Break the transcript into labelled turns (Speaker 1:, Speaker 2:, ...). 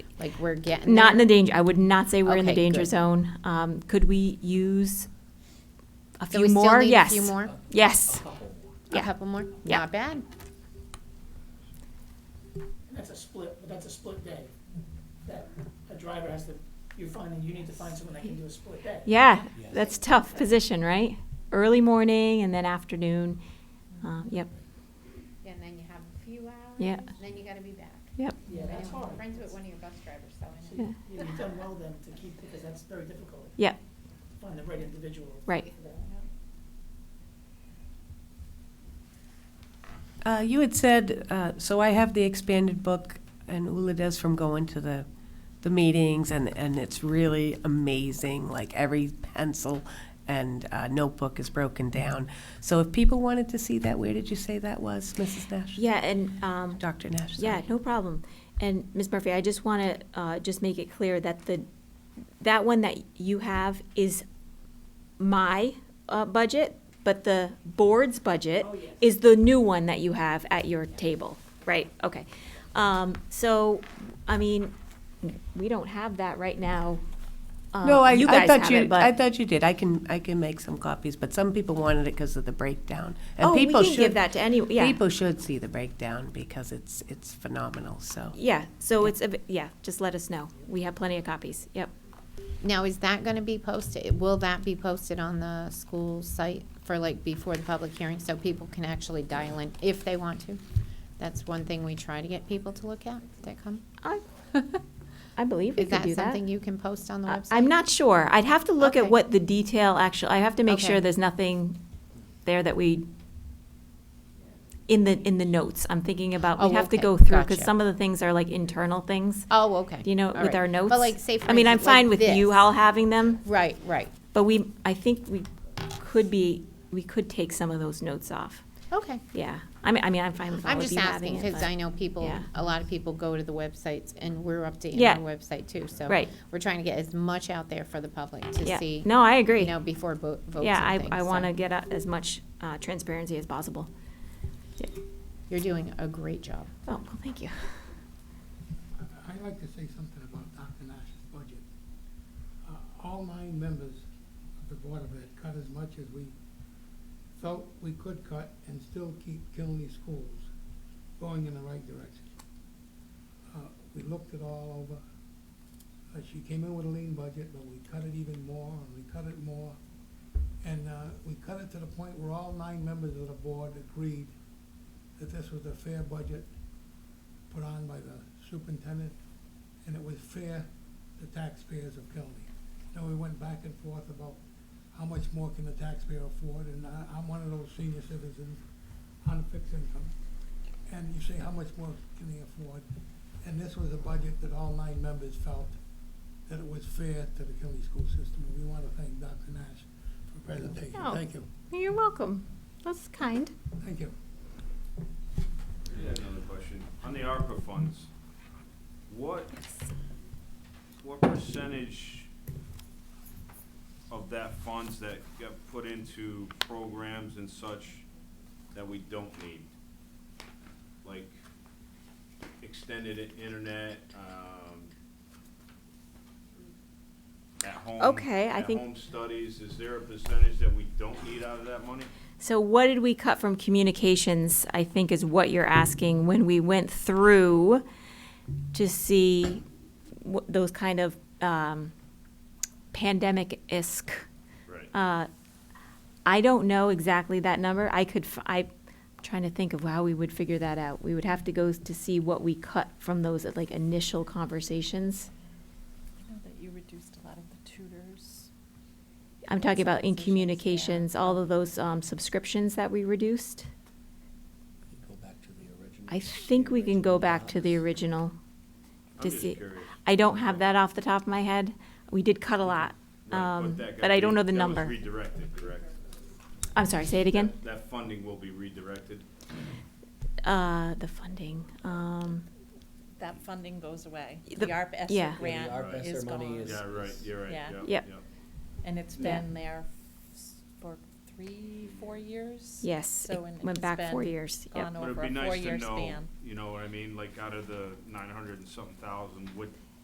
Speaker 1: Like we're getting
Speaker 2: Not in
Speaker 1: there?
Speaker 2: the danger, I would not say we're in the
Speaker 1: Okay,
Speaker 2: danger
Speaker 1: good.
Speaker 2: zone. Um, could we use a
Speaker 1: So
Speaker 2: few
Speaker 1: we still
Speaker 2: more?
Speaker 1: need a
Speaker 2: Yes.
Speaker 1: few more?
Speaker 2: Yes,
Speaker 1: A
Speaker 2: Yeah.
Speaker 1: couple more?
Speaker 2: Yeah.
Speaker 1: Not bad.
Speaker 3: And that's a split, but that's a split day. That a driver has to, you're finding, you need to find someone that can do a split day.
Speaker 2: yeah, that's tough position, right? Early morning and then afternoon, uh, yep,
Speaker 4: And then you have a few hours.
Speaker 2: Yeah.
Speaker 4: Then you gotta be back.
Speaker 2: yep,
Speaker 3: Yeah, that's
Speaker 4: I'm
Speaker 3: hard.
Speaker 4: Friends with one of your bus drivers, so I
Speaker 2: Yeah.
Speaker 4: know.
Speaker 3: So you- You've done well then to keep, because that's very difficult,
Speaker 2: yep,
Speaker 3: to find the right individual.
Speaker 2: right.
Speaker 3: for that.
Speaker 5: Uh, You had said, uh, so I have the expanded book, and Ula does from going to the, the meetings, and, and it's really amazing, like every pencil and uh, notebook is broken down. So if people wanted to see that, where did you say that was, Mrs. Nash?
Speaker 2: Yeah, and, um,
Speaker 5: Dr. Nash,
Speaker 2: Yeah,
Speaker 5: sorry.
Speaker 2: no problem. And Ms. Murphy, I just want to uh, just make it clear that the, that one that you have is my uh, budget, but the board's budget is the new one that you have at your table, right? Okay. Um, So, I mean, we don't have that right now. Uh,
Speaker 5: No, I,
Speaker 2: you
Speaker 5: I
Speaker 2: guys
Speaker 5: thought
Speaker 2: have
Speaker 5: you,
Speaker 2: it, but-
Speaker 5: I thought you did. I can, I can make some copies, but some people wanted it because of the breakdown. and
Speaker 2: Oh, we
Speaker 5: people
Speaker 2: can give
Speaker 5: should-
Speaker 2: that to any, yeah.
Speaker 5: People should see the breakdown because it's, it's phenomenal, so.
Speaker 2: Yeah, so it's, a yeah, just let us know. We have plenty of copies, yep.
Speaker 1: Now, is that gonna be posted? Will that be posted on the school site for like before the public hearing so people can actually dial in if they want to? That's one thing we try to get people to look at that come.
Speaker 2: I I believe we
Speaker 1: Is
Speaker 2: could
Speaker 1: that
Speaker 2: do that.
Speaker 1: something you can post on the
Speaker 2: I-
Speaker 1: website?
Speaker 2: I'm not sure. I'd have to look at
Speaker 1: Okay.
Speaker 2: what the detail actually, I have to make sure
Speaker 1: Okay.
Speaker 2: there's nothing there that we, in the, in the notes, I'm thinking about,
Speaker 1: Oh,
Speaker 2: we'd have to
Speaker 1: okay.
Speaker 2: go through, because
Speaker 1: Gotcha.
Speaker 2: some of the things are like internal things,
Speaker 1: Oh, okay.
Speaker 2: Do you know,
Speaker 1: All
Speaker 2: with
Speaker 1: right.
Speaker 2: our notes.
Speaker 1: But like, say for
Speaker 2: I mean, I'm
Speaker 1: instance, like
Speaker 2: fine with you
Speaker 1: this.
Speaker 2: all having them,
Speaker 1: Right, right.
Speaker 2: but we, I think we could be, we could take some of those notes off,
Speaker 1: Okay.
Speaker 2: yeah. I mean, I mean, I'm fine with all
Speaker 1: I'm
Speaker 2: of
Speaker 1: just
Speaker 2: you having
Speaker 1: asking
Speaker 2: it,
Speaker 1: because
Speaker 2: but-
Speaker 1: I know people,
Speaker 2: yeah.
Speaker 1: a lot of people go to the websites and we're updating
Speaker 2: Yeah.
Speaker 1: our website too. So
Speaker 2: Right.
Speaker 1: we're trying to get as much out there for the public to
Speaker 2: Yeah.
Speaker 1: see.
Speaker 2: No, I agree.
Speaker 1: You know, before bo- votes and things.
Speaker 2: Yeah, I, I
Speaker 1: so
Speaker 2: want to get a- as much uh, transparency as possible. Yeah.
Speaker 1: You're doing a great job.
Speaker 2: Oh, well, thank you.
Speaker 6: I- I'd like to say something about Dr. Nash's budget. Uh, All nine members of the Board of Ed cut as much as we felt we could cut and still keep Killenly schools going in the right direction. Uh, We looked it all over. Uh, She came in with a lean budget, but we cut it even more, and we cut it more. And uh, we cut it to the point where all nine members of the board agreed that this was a fair budget put on by the superintendent, and it was fair to taxpayers of Kelly. Then we went back and forth about how much more can the taxpayer afford, and I, I'm one of those senior citizens on a fixed income. And you say, how much more can they afford? And this was a budget that all nine members felt that it was fair to the Kelly school system. We want to thank Dr. Nash for presentation.
Speaker 2: Oh.
Speaker 6: Thank you,
Speaker 2: You're welcome. That's kind.
Speaker 6: thank you.
Speaker 7: I had another question. On the ARPA funds, what, what percentage of that funds that got put into programs and such that we don't need? Like extended i- internet, um, at home.
Speaker 2: Okay, I think-
Speaker 7: At-home studies, is there a percentage that we don't need out of that money?
Speaker 2: So what did we cut from communications, I think is what you're asking, when we went through to see wh- those kind of um, pandemic-esque.
Speaker 7: Right.
Speaker 2: uh, I don't know exactly that number. I could, f- I'm trying to think of how we would figure that out. We would have to go s- to see what we cut from those, like, initial conversations.
Speaker 8: I know that you reduced a lot of the tutors.
Speaker 2: I'm talking about in
Speaker 8: Subsidies, yeah.
Speaker 2: communications, all of those um, subscriptions that we reduced.
Speaker 9: Go back to the original.
Speaker 2: I think we can go back to the original.
Speaker 7: I'm
Speaker 2: to
Speaker 7: just
Speaker 2: see-
Speaker 7: curious.
Speaker 2: I don't have that off the top of my head. We did cut a lot,
Speaker 7: Right,
Speaker 2: um,
Speaker 7: that got
Speaker 2: but I don't
Speaker 7: re-
Speaker 2: know the
Speaker 7: that was
Speaker 2: number.
Speaker 7: redirected, correct?
Speaker 2: I'm sorry, say it again.
Speaker 7: That- That funding will be redirected.
Speaker 2: Uh, The funding, um,
Speaker 8: That funding goes away.
Speaker 2: The-
Speaker 8: The ARP
Speaker 2: yeah.
Speaker 8: ESSER
Speaker 9: Yeah, the
Speaker 8: grant
Speaker 9: ARP
Speaker 8: is
Speaker 9: ESSER money
Speaker 8: gone.
Speaker 9: is-
Speaker 7: Yeah, right, you're right,
Speaker 8: Yeah.
Speaker 7: yeah.
Speaker 2: Yep.
Speaker 8: And it's
Speaker 2: Yeah.
Speaker 8: been there s- for three, four years?
Speaker 2: yes, it
Speaker 8: So, and
Speaker 2: went
Speaker 8: it's
Speaker 2: back
Speaker 8: been
Speaker 2: four years. Yep.
Speaker 8: Gone
Speaker 7: But
Speaker 8: over
Speaker 7: it'd
Speaker 8: a
Speaker 7: be nice to
Speaker 8: four-year
Speaker 7: know,
Speaker 8: span.
Speaker 7: you know what I mean, like out of the nine hundred and something thousand, what